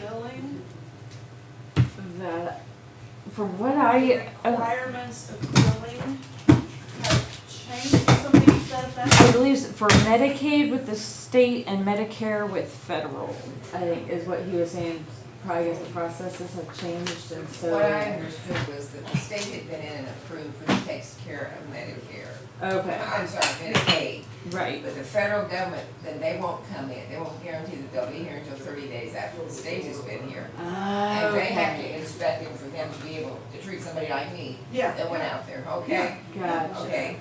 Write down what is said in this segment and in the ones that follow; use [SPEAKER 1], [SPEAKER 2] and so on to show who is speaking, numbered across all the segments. [SPEAKER 1] billing,
[SPEAKER 2] that, from what
[SPEAKER 1] the
[SPEAKER 2] I, uh,
[SPEAKER 1] requirements of billing have changed something to that
[SPEAKER 2] I
[SPEAKER 1] effect.
[SPEAKER 2] believe it's for Medicaid with the state and Medicare with federal, I think is what he was saying. Probably as the processes have changed and
[SPEAKER 3] What I
[SPEAKER 2] so,
[SPEAKER 3] understood was that the state had been in and approved, which takes care of Medicare.
[SPEAKER 2] okay,
[SPEAKER 3] I'm sorry, Medicaid,
[SPEAKER 2] right,
[SPEAKER 3] but the federal government, then they won't come in, they won't guarantee that they'll be here until thirty days after the state has been here.
[SPEAKER 2] Ah,
[SPEAKER 3] And they have to
[SPEAKER 2] okay,
[SPEAKER 3] inspect it for them to be able to treat somebody like me that went
[SPEAKER 1] Yeah,
[SPEAKER 3] out there, okay?
[SPEAKER 2] gotcha.
[SPEAKER 3] Okay,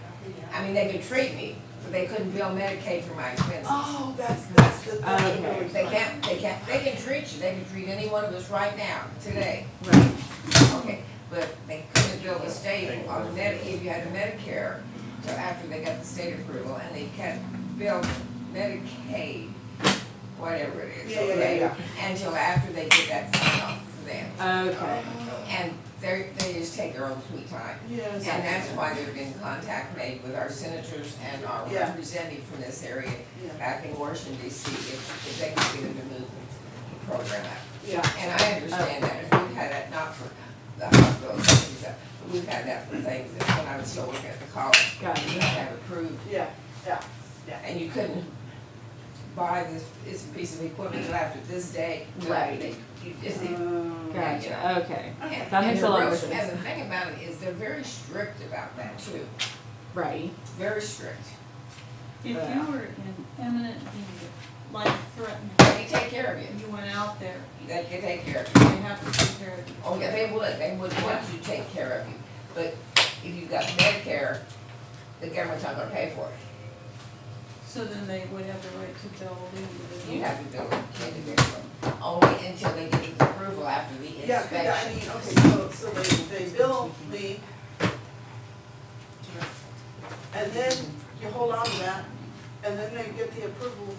[SPEAKER 3] I mean, they could treat me, but they couldn't bill Medicaid for my expenses.
[SPEAKER 1] oh, that's, that's the
[SPEAKER 2] Okay.
[SPEAKER 1] thing.
[SPEAKER 3] They can't, they can't, they can treat you, they can treat any one of us right now, today,
[SPEAKER 2] Right,
[SPEAKER 3] okay? But they couldn't bill the state on Medi, if you had a Medicare, till after they got the state approval, and they can't bill Medicaid, whatever it is,
[SPEAKER 1] Yeah, yeah, yeah,
[SPEAKER 3] okay?
[SPEAKER 1] yeah.
[SPEAKER 3] Until after they get that sign off for them,
[SPEAKER 2] okay,
[SPEAKER 3] and they're, they just take their own sweet time.
[SPEAKER 1] Yes.
[SPEAKER 3] And that's why there've been contact made with our senators and our
[SPEAKER 1] Yeah.
[SPEAKER 3] representatives from this area
[SPEAKER 1] Yeah.
[SPEAKER 3] back in Washington DC, if, if they could get them to move the program up.
[SPEAKER 1] Yeah,
[SPEAKER 3] And I understand that, if we've had that, not for the hospital things, uh, but we've had that for things that when I was still working at the college,
[SPEAKER 2] Gotcha.
[SPEAKER 3] you had to have approved,
[SPEAKER 1] yeah,
[SPEAKER 3] and you couldn't buy this, this piece of equipment till after this day. till
[SPEAKER 2] Right.
[SPEAKER 3] they- You just, and,
[SPEAKER 1] um,
[SPEAKER 2] gotcha, okay,
[SPEAKER 3] and
[SPEAKER 2] That makes
[SPEAKER 3] the
[SPEAKER 2] a lot more
[SPEAKER 3] real-
[SPEAKER 2] sense.
[SPEAKER 3] And the thing about it is, they're very strict about that too.
[SPEAKER 2] right,
[SPEAKER 3] Very strict.
[SPEAKER 4] If you were in imminent danger, life threatened,
[SPEAKER 3] They take care of you.
[SPEAKER 4] and you went out there,
[SPEAKER 3] They can take care of you.
[SPEAKER 4] they have to take care of you.
[SPEAKER 3] Oh, yeah, they would. They would want you to take care of you. But if you've got Medicare, the government's not gonna pay for it.
[SPEAKER 4] So then they would have the right to bill the
[SPEAKER 3] You
[SPEAKER 4] individual.
[SPEAKER 3] have to bill it individually. Only until they get the approval after the
[SPEAKER 1] yeah, 'cause I
[SPEAKER 3] inspection.
[SPEAKER 1] mean, okay, so, so they, they bill the. And then you hold on to that, and then they get the approval,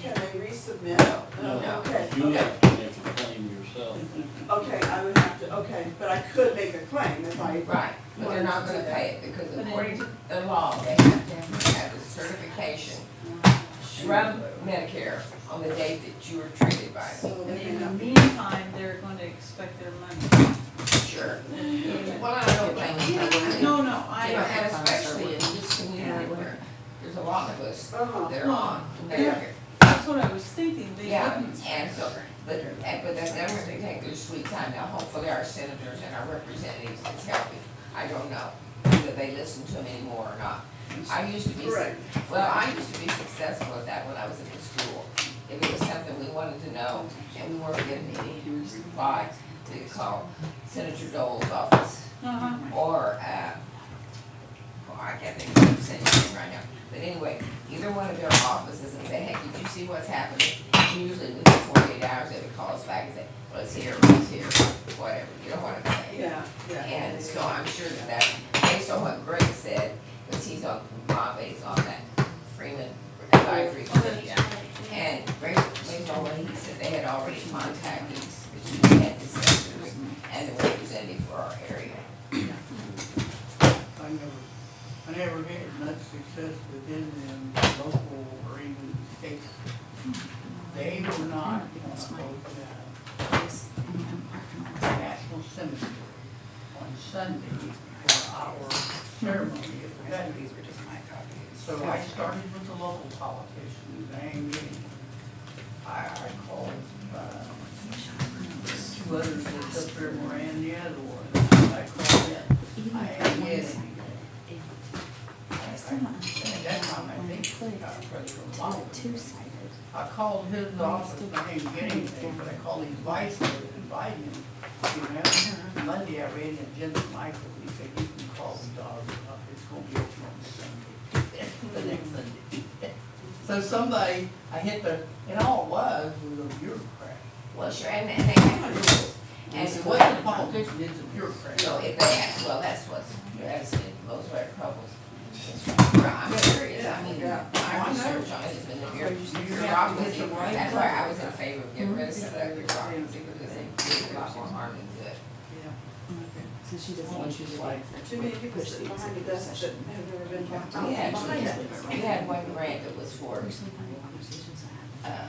[SPEAKER 1] can they resubmit?
[SPEAKER 3] No.
[SPEAKER 1] Okay,
[SPEAKER 5] You
[SPEAKER 1] okay.
[SPEAKER 5] have to make a claim yourself.
[SPEAKER 1] Okay, I would have to, okay, but I could make a claim if I,
[SPEAKER 3] Right, but they're not gonna pay it because
[SPEAKER 4] But it-
[SPEAKER 3] according to the law, they have to have a certification from Medicare on the date that you were treated by it.
[SPEAKER 1] so
[SPEAKER 4] And
[SPEAKER 1] they
[SPEAKER 4] in the
[SPEAKER 1] have,
[SPEAKER 4] meantime, they're going to expect their money.
[SPEAKER 3] Sure. Well, I don't think.
[SPEAKER 4] No, no,
[SPEAKER 3] You know,
[SPEAKER 4] I,
[SPEAKER 3] and especially in this community where there's a lot of us
[SPEAKER 1] uh-huh,
[SPEAKER 3] that are on Medicare.
[SPEAKER 4] that's what I was thinking, they
[SPEAKER 3] Yeah,
[SPEAKER 4] wouldn't.
[SPEAKER 3] and so, but, and- but that number, they take their sweet time. Now hopefully our senators and our representatives is helping. I don't know whether they listen to them anymore or not. I used to be,
[SPEAKER 1] Right.
[SPEAKER 3] well, I used to be successful at that when I was in the school. If it was something we wanted to know and we weren't getting any reply, we could call Senator Dole's office
[SPEAKER 4] Uh-huh.
[SPEAKER 3] or, uh, oh, I can't think of the senator's name right now, but anyway, either one of their offices and say, hey, did you see what's happening? And Usually within forty-eight hours, they would call us back and say, well, it's here, it's here, whatever, you know what I'm saying?
[SPEAKER 1] yeah, yeah.
[SPEAKER 3] And so I'm sure that that, based on what Greg said, because he's on, my base on that Freeman advisory committee. And Greg, based on what he said, they had already contacted the chief head assessors and the representative for our area.
[SPEAKER 6] I never, I never had much success within the local or even state. They were not on both the National Cemetery on Sunday for our ceremony of the veterans. So I started with the local politicians, I ain't getting, I, I called, uh, two others that's up there, Moran, the other one, I called them. I ain't getting anything. At that time, I think, uh, President Obama was there. I called his office, I didn't get anything, but I called his vice president, invited him, you know? Monday, I ran into Jim Michael, he said, you can call the dog, up. it's gonna be open on Sunday, the next Sunday. So somebody, I hit the, and all it was, was a bureaucrat.
[SPEAKER 3] Well, sure, and, and they have rules,
[SPEAKER 6] And
[SPEAKER 3] and
[SPEAKER 6] it
[SPEAKER 3] so what,
[SPEAKER 6] wasn't a politician, it's a bureaucrat.
[SPEAKER 3] so if they ask, well, that's what's, that's it, most of our troubles. Well, I'm serious, I mean, my research on it has been the bureau- bureaucracy, that's why I was in favor of getting rid of some of that bureaucracy, because it did a lot more harm than good.
[SPEAKER 2] so she doesn't want you to like.
[SPEAKER 1] Too many people sitting behind the desk that have never been behind.
[SPEAKER 3] We
[SPEAKER 1] behind
[SPEAKER 3] actually,
[SPEAKER 1] it.
[SPEAKER 3] we had one grant that was for, uh,